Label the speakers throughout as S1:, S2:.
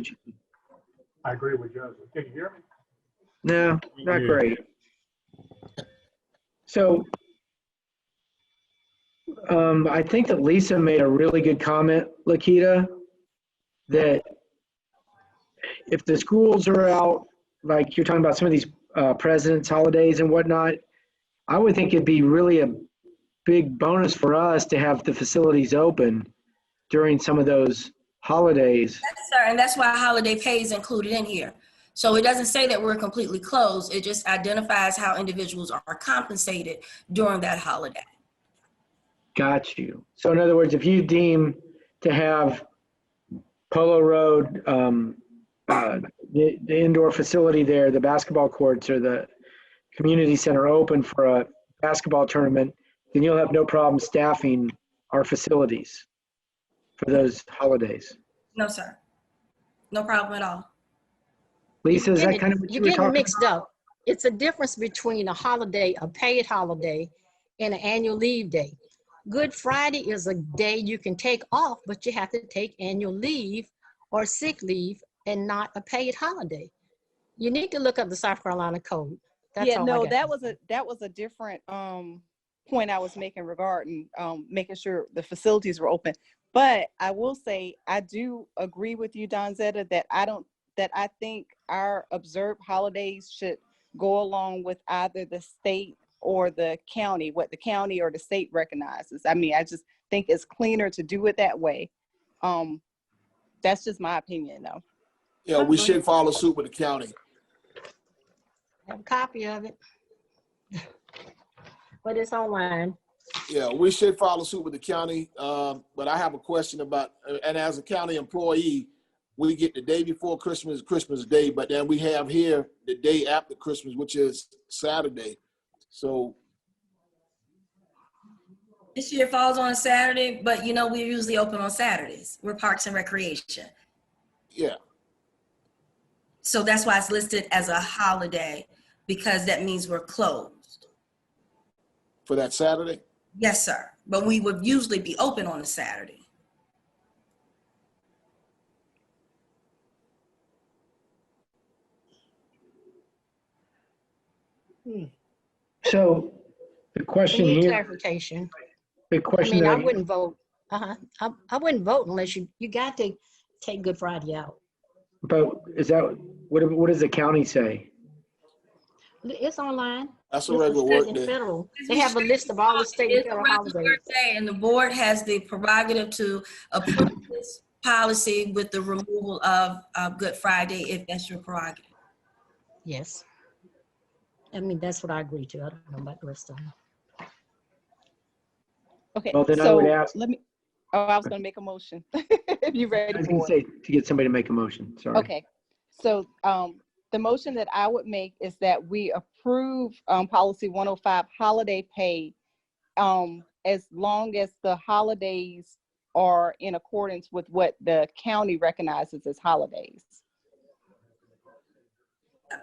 S1: Did you-
S2: I agree with Joseph. Can you hear me?
S1: No, not great. So um, I think that Lisa made a really good comment, Lakita, that if the schools are out, like you're talking about some of these uh, presidents' holidays and whatnot, I would think it'd be really a big bonus for us to have the facilities open during some of those holidays.
S3: Yes, sir, and that's why holiday pay is included in here. So it doesn't say that we're completely closed, it just identifies how individuals are compensated during that holiday.
S1: Got you. So in other words, if you deem to have Polo Road, um, uh, the, the indoor facility there, the basketball courts or the community center open for a basketball tournament, then you'll have no problem staffing our facilities for those holidays.
S3: No, sir. No problem at all.
S1: Lisa, is that
S4: getting-
S1: kind of what you
S4: You're
S1: were
S4: getting
S1: talking?
S4: mixed up. It's a difference between a holiday, a paid holiday, and an annual leave day. Good Friday is a day you can take off, but you have to take annual leave or sick leave and not a paid holiday. You need to look up the South Carolina code. That's
S5: Yeah,
S4: all I
S5: no,
S4: got.
S5: that was a, that was a different, um, point I was making regarding, um, making sure the facilities were open. But I will say, I do agree with you, Donzetta, that I don't, that I think our observed holidays should go along with either the state or the county, what the county or the state recognizes. I mean, I just think it's cleaner to do it that way. Um, that's just my opinion though.
S6: Yeah, we should follow suit with the county.
S4: Have a copy of it. But it's online.
S6: Yeah, we should follow suit with the county. Um, but I have a question about, uh, and as a county employee, we get the day before Christmas, Christmas Day, but then we have here the day after Christmas, which is Saturday. So,
S3: This year falls on a Saturday, but you know, we're usually open on Saturdays. We're Parks and Recreation.
S6: yeah,
S3: So that's why it's listed as a holiday, because that means we're closed.
S6: for that Saturday.
S3: Yes, sir, but we would usually be open on a Saturday.
S1: So the
S4: We
S1: question
S4: need
S1: here,
S4: clarification.
S1: the
S4: I
S1: question
S4: mean, I
S1: that,
S4: wouldn't vote. Uh-huh. I, I wouldn't vote unless you, you got to take Good Friday out.
S1: but is that, what, what does the county say?
S4: It's online. It's
S6: That's a
S4: a
S6: regular
S4: state
S6: work
S4: and
S6: day.
S4: federal. They have a list of all the state and
S3: It's a
S4: federal
S3: regular
S4: holidays.
S3: day, And the board has the prerogative to approve this policy with the removal of uh, Good Friday, if that's your prerogative.
S4: Yes. I mean, that's what I agree to. I don't know about the rest of them.
S5: Okay,
S1: Well, then I would
S5: so
S1: ask-
S5: let me, oh, I was gonna make a motion. If you
S1: I
S5: ready
S1: was gonna
S5: for it.
S1: say, to get somebody to make a motion, sorry.
S5: Okay, so um, the motion that I would make is that we approve um, policy 105 holiday pay um, as long as the holidays are in accordance with what the county recognizes as holidays.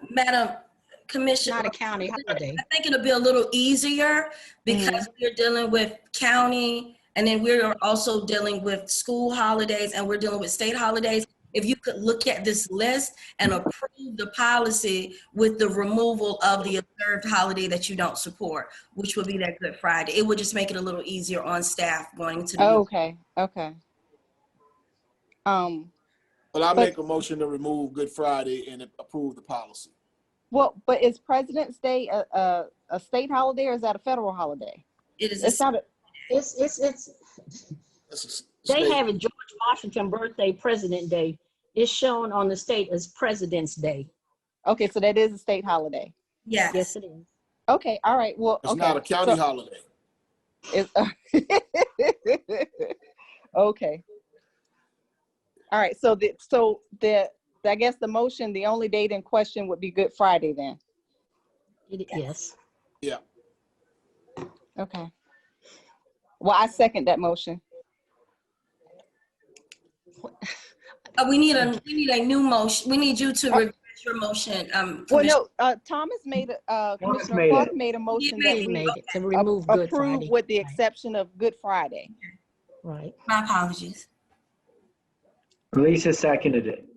S3: Madam
S4: It's
S3: Commissioner,
S4: not a county holiday.
S3: I think it'll be a little easier because
S5: Mm-hmm.
S3: we're dealing with county and then we're also dealing with school holidays and we're dealing with state holidays. If you could look at this list and approve the policy with the removal of the observed holiday that you don't support, which would be that Good Friday. It would just make it a little easier on staff going to. the-
S5: Okay, okay. Um,
S6: But I make a motion to remove Good Friday and approve the policy.
S5: well, but is President's Day a, a, a state holiday or is that a federal holiday?
S3: It is. a-
S5: It's not, a-
S4: It's, it's, it's,
S6: That's a s-
S4: they
S6: state-
S4: have a George Washington birthday, President Day. It's shown on the state as President's Day.
S5: okay, so that is a state holiday.
S3: Yes.
S4: Yes, it is.
S5: Okay, all right, well,
S6: It's
S5: okay.
S6: not a county
S5: so-
S6: holiday.
S5: Is, uh, okay. All right, so the, so the, I guess the motion, the only date in question would be Good Friday then.
S4: It- Yes.
S5: Okay. Well, I second that motion.
S3: Uh, We need a, we need a new motion. We need you to revise your motion. um,
S5: Oh. Well,
S3: Commissioner.
S5: no, uh, Thomas made, a- uh,
S1: Thomas
S5: Commissioner
S1: made
S5: Carter
S1: it.
S5: made a motion that
S4: They
S3: Maybe.
S4: made it to
S5: we a-
S4: remove Good Friday.
S5: approve with the
S4: Right,
S5: exception of Good Friday.
S4: Right.
S3: My apologies.
S1: Lisa seconded it.